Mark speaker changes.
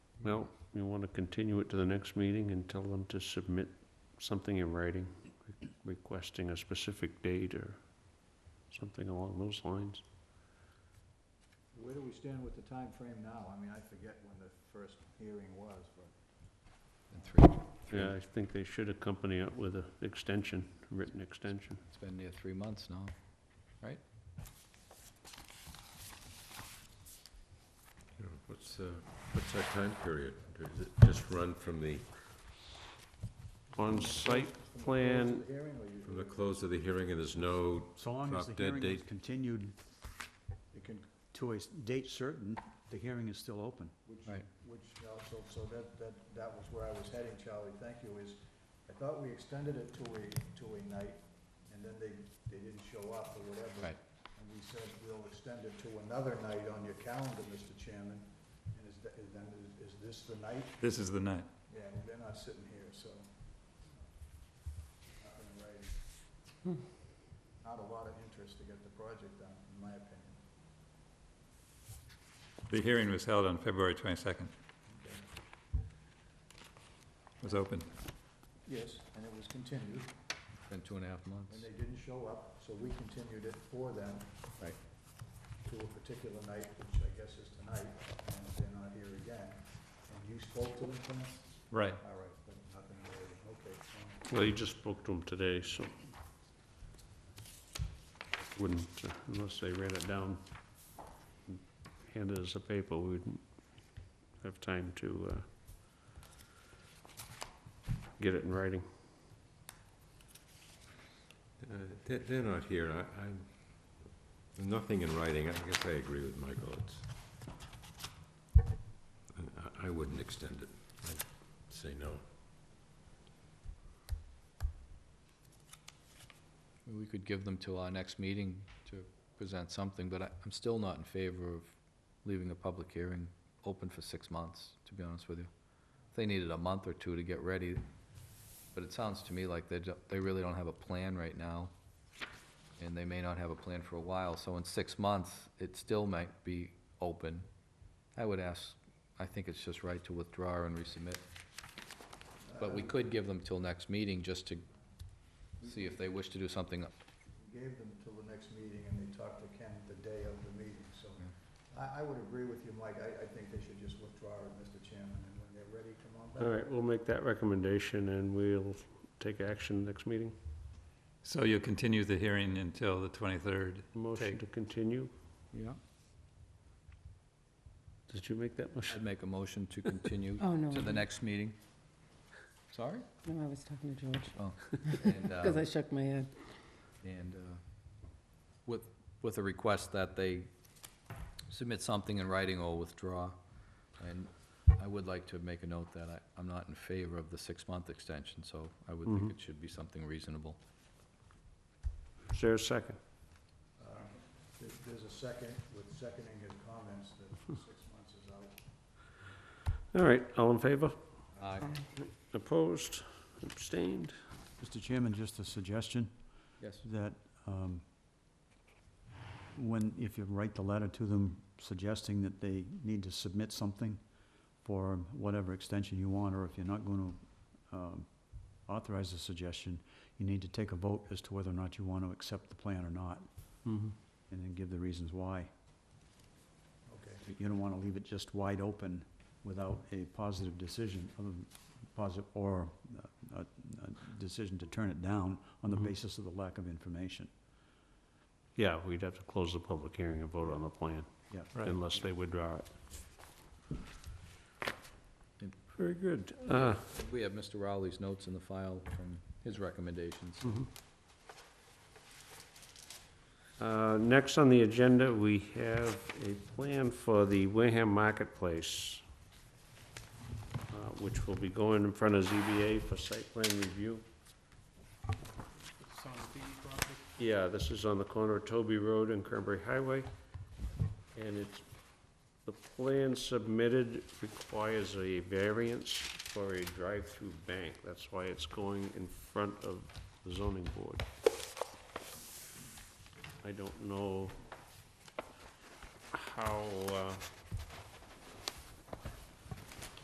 Speaker 1: Well, you want to continue it to the next meeting and tell them to submit something in writing requesting a specific date or something along those lines.
Speaker 2: Where do we stand with the time frame now? I mean, I forget when the first hearing was, but.
Speaker 3: And three, three,
Speaker 1: Yeah, I think they should accompany it with an extension, written extension.
Speaker 3: it's been near three months now.
Speaker 4: You know, What's, uh, what's our time period? Does it just run from the,
Speaker 1: On-site plan,
Speaker 4: from the close of the hearing and there's no,
Speaker 5: So long as the
Speaker 4: Drop dead
Speaker 5: hearing is
Speaker 4: date.
Speaker 5: continued
Speaker 2: It can,
Speaker 5: to a s- date certain, the hearing is still open.
Speaker 2: which,
Speaker 3: Right.
Speaker 2: which also, so that, that, that was where I was heading, Charlie, thank you, is I thought we extended it to a, to a night, and then they, they didn't show up or whatever.
Speaker 3: Right.
Speaker 2: And we said, we'll extend it to another night on your calendar, Mr. Chairman, and is, that- is then, is- is this the night?
Speaker 6: This is the night.
Speaker 2: Yeah, they're not sitting here, so. not gonna raise.
Speaker 3: Hmm.
Speaker 2: Not a lot of interest to get the project done, in my opinion.
Speaker 6: The hearing was held on February 22nd. Was open.
Speaker 2: Yes, and it was continued,
Speaker 3: It's been two and a half months.
Speaker 2: and they didn't show up, so we continued it for them.
Speaker 3: Right.
Speaker 2: To a particular night, which I guess is tonight, and they're not here again. And you spoke to them, Tom?
Speaker 6: Right.
Speaker 2: All right, but nothing related, okay. fine.
Speaker 1: well, you just spoke to them today, so wouldn't, uh, unless they ran it down, and handed us a paper, we wouldn't have time to uh, get it in writing.
Speaker 4: uh, they're, they're not here. I, I'm, nothing in writing. I guess I agree with Michael. It's, I, I wouldn't extend it. I'd say no.
Speaker 3: We could give them till our next meeting to present something, but I, I'm still not in favor of leaving the public hearing open for six months, to be honest with you. They needed a month or two to get ready, but it sounds to me like they, don't- they really don't have a plan right now, and they may not have a plan for a while, so in six months, it still might be open. I would ask, I think it's just right to withdraw and resubmit, but we
Speaker 2: Uh,
Speaker 3: could give them till next meeting just to see if they wish to do something
Speaker 2: We gave them till the next meeting, and they talked to Ken the day of the meeting, so I, I would agree with you, Mike, I, I think they should just withdraw it, Mr. Chairman, and when they're ready, come on back.
Speaker 1: All right, we'll make that recommendation and we'll take action next meeting.
Speaker 6: So you'll continue the hearing until the 23rd.
Speaker 1: Motion
Speaker 6: Take.
Speaker 1: to continue.
Speaker 3: Yeah.
Speaker 1: Did you make that motion?
Speaker 3: I'd make a motion to continue
Speaker 7: Oh, no.
Speaker 3: to the
Speaker 7: no.
Speaker 3: next meeting. Sorry?
Speaker 7: No, I was talking to George,
Speaker 3: And,
Speaker 7: because I
Speaker 3: uh,
Speaker 7: shook my head.
Speaker 3: and, uh, with, with a request that they submit something in writing or withdraw. And I would like to make a note that I, I'm not in favor of the six-month extension, so I would think
Speaker 1: Mhm.
Speaker 3: it should be something reasonable.
Speaker 1: Is there a second?
Speaker 2: Uh, there- There's a second, with seconding his comments, that six months is out.
Speaker 1: All right, all in favor?
Speaker 3: Aye.
Speaker 1: Opposed? Abstained?
Speaker 5: Mr. Chairman, just a suggestion
Speaker 3: Yes.
Speaker 5: that um, when, if you write the letter to them suggesting that they need to submit something for whatever extension you want, or if you're not going to authorize the suggestion, you need to take a vote as to whether or not you want to accept the plan or not,
Speaker 1: Mhm.
Speaker 5: and then give the reasons why.
Speaker 2: Okay.
Speaker 5: You don't want to leave it just wide open without a positive decision, other than positive, or uh, a, a decision to turn it down on the
Speaker 1: Mhm.
Speaker 5: basis of the lack of information.
Speaker 1: Yeah, we'd have to close the public hearing and vote on the plan,
Speaker 5: Yeah.
Speaker 1: unless they withdraw it. Very good. Uh,
Speaker 3: We have Mr. Rowley's notes in the file from his recommendations.
Speaker 1: mhm. Uh, Next on the agenda, we have a plan for the Wareham Marketplace, uh, which will be going in front of ZBA for site plan review. Yeah, this is on the corner of Toby Road and Cranberry Highway. And it's, the plan submitted requires a variance for a drive-through bank. That's why it's going in front of the zoning board. I don't know how, uh,